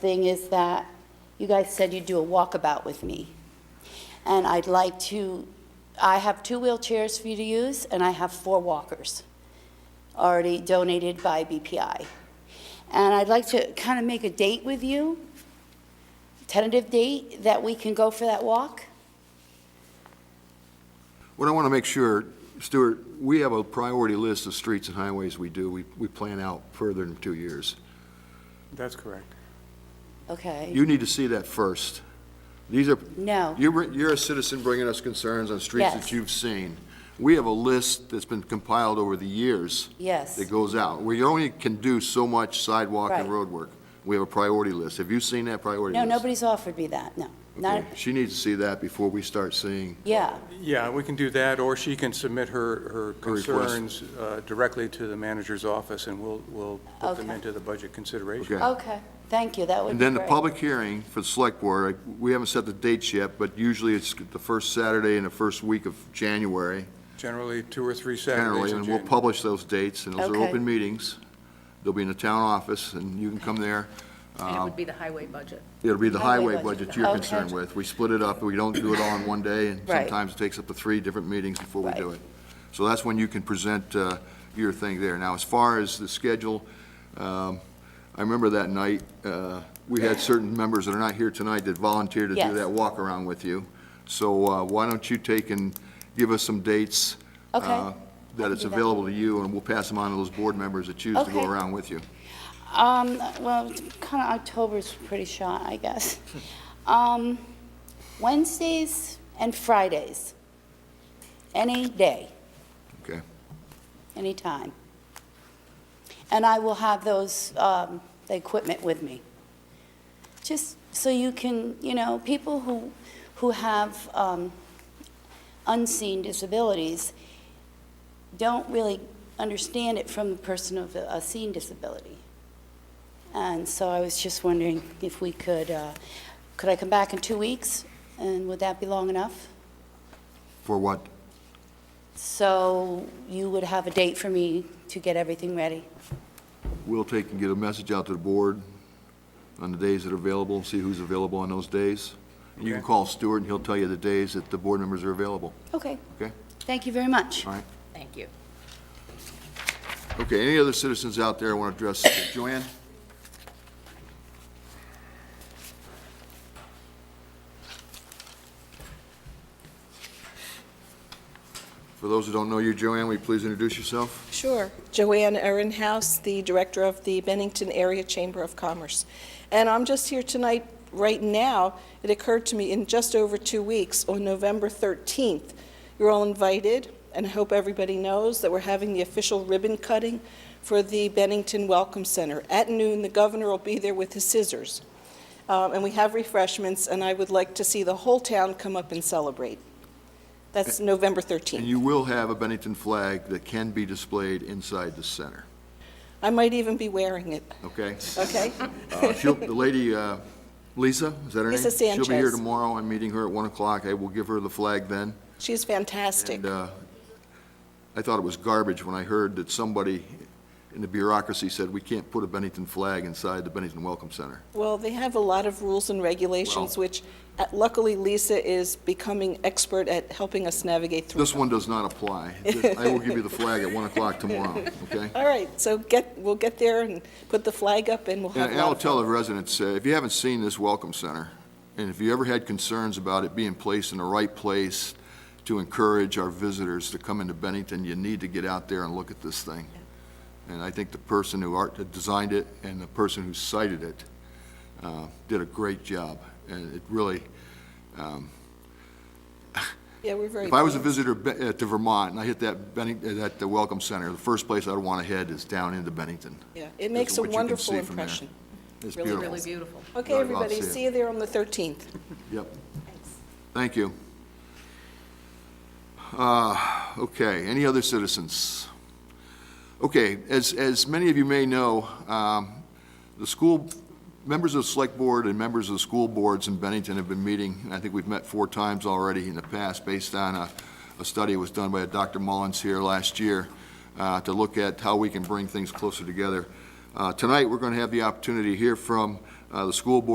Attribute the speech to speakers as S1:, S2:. S1: thing is that you guys said you'd do a walkabout with me. And I'd like to, I have two wheelchairs for you to use, and I have four walkers already donated by BPI. And I'd like to kind of make a date with you, tentative date, that we can go for that walk.
S2: What I want to make sure, Stuart, we have a priority list of streets and highways we do. We, we plan out further than two years.
S3: That's correct.
S1: Okay?
S2: You need to see that first. These are,
S1: No.
S2: you, br- you're a citizen bringing us concerns on streets
S1: Yes.
S2: that you've seen. We have a list that's been compiled over the years
S1: Yes.
S2: that goes out. We only can do so much sidewalk and
S1: Right.
S2: road work. We have a priority list. Have you seen that priority
S1: No,
S2: list?
S1: nobody's offered me that, no. Not,
S2: Okay. She needs to see that before we start seeing,
S1: yeah,
S3: Yeah, we can do that, or she can submit her, her
S2: request.
S3: concerns uh, directly to the manager's office, and we'll, we'll put them
S1: Okay.
S3: into the budget consideration.
S2: okay?
S1: okay, thank you, that would
S2: And
S1: be
S2: then the
S1: great.
S2: public hearing for the select board, I- we haven't set the dates yet, but usually it's the first Saturday in the first week of January,
S3: Generally, two or three Saturdays
S2: generally,
S3: in
S2: and we'll
S3: January.
S2: publish those dates, and those are
S1: Okay.
S2: open meetings. They'll be in the town office, and you can come there. um,
S4: And it would be the highway budget.
S2: It'll be the
S1: Highway
S2: highway
S1: budget.
S2: budget you're
S1: Okay.
S2: concerned with. We split it up, we don't do it all in one day, and
S1: Right.
S2: sometimes it takes up to three different meetings before we do
S1: Right.
S2: it. So that's when you can present uh, your thing there. Now, as far as the schedule, um, I remember that night, uh, we had certain members that are not here tonight that volunteered to do
S1: Yes.
S2: that walk-around with you. So uh, why don't you take and give us some dates?
S1: Okay.
S2: uh,
S1: I
S2: That
S1: can
S2: it's
S1: do that.
S2: available to you, and we'll pass them on to those board members that choose to
S1: Okay.
S2: go around with you.
S1: Um, well, kind of October's pretty shot, I guess. Um, Wednesdays and Fridays, any day,
S2: Okay?
S1: any time. And I will have those, um, the equipment with me. Just so you can, you know, people who, who have, um, unseen disabilities don't really understand it from the person of a a seen disability. And so I was just wondering if we could, uh, could I come back in two weeks? And would that be long enough?
S2: For what?
S1: So you would have a date for me to get everything ready?
S2: We'll take and get a message out to the board on the days that are available, see who's available on those days. You can
S3: Okay.
S2: call Stuart, and he'll tell you the days that the board members are available,
S1: Okay,
S2: okay?
S1: thank you very much.
S2: All right.
S4: Thank you.
S2: Okay, any other citizens out there want to address Joanne? For those who don't know you, Joanne, will you please introduce yourself?
S5: Sure. Joanne Ehrenhaus, the director of the Bennington Area Chamber of Commerce. And I'm just here tonight, right now, it occurred to me in just over two weeks, on November 13th, you're all invited, and I hope everybody knows that we're having the official ribbon cutting for the Bennington Welcome Center. At noon, the governor will be there with his scissors. Um, And we have refreshments, and I would like to see the whole town come up and celebrate. That's November 13th.
S2: And you will have a Bennington flag that can be displayed inside the center,
S5: I might even be wearing it,
S2: okay?
S5: okay?
S2: Uh, She'll, the lady, uh, Lisa, is that her name?
S5: Lisa
S2: She'll be here
S5: Sanchez.
S2: tomorrow. I'm meeting her at 1 o'clock. I will give her the flag then.
S5: She's fantastic.
S2: And uh, I thought it was garbage when I heard that somebody in the bureaucracy said, we can't put a Bennington flag inside the Bennington Welcome Center.
S5: Well, they have a lot of rules and regulations,
S2: Well-
S5: which uh, luckily Lisa is becoming expert at helping us navigate through.
S2: This one does not apply. I will give you the flag at 1 o'clock tomorrow, okay?
S5: All right, so get, we'll get there and put the flag up and we'll have
S2: And
S5: a
S2: and
S5: lot
S2: I'll
S5: of
S2: tell
S5: fun.
S2: the residents, uh, if you haven't seen this Welcome Center, and if you ever had concerns about it being placed in the right place to encourage our visitors to come into Bennington, you need to get out there and look at this thing. And I think the person who art, that designed it and the person who cited it uh, did a great job. And it really,
S5: Yeah, we're very.
S2: if I was a
S5: pleased.
S2: visitor be- uh, to Vermont and I hit that Bennington, that the Welcome Center, the first place I'd want to head is down into Bennington.
S5: Yeah, It makes a
S2: what you can
S5: wonderful
S2: see from there.
S5: impression.
S2: It's
S4: Really,
S2: beautiful.
S4: really beautiful.
S5: Okay,
S2: I'd love to
S5: everybody,
S2: see it.
S5: see you there on the 13th.
S2: Yep. Thank you. Uh, Okay, any other citizens? Okay, as, as many of you may know, um, the school, members of the select board and members of the school boards in Bennington have been meeting, and I think we've met four times already in the past, based on a, a study that was done by Dr. Mullins here last year, uh, to look at how we can bring things closer together. Uh, Tonight, we're going to have the opportunity to hear from uh, the school board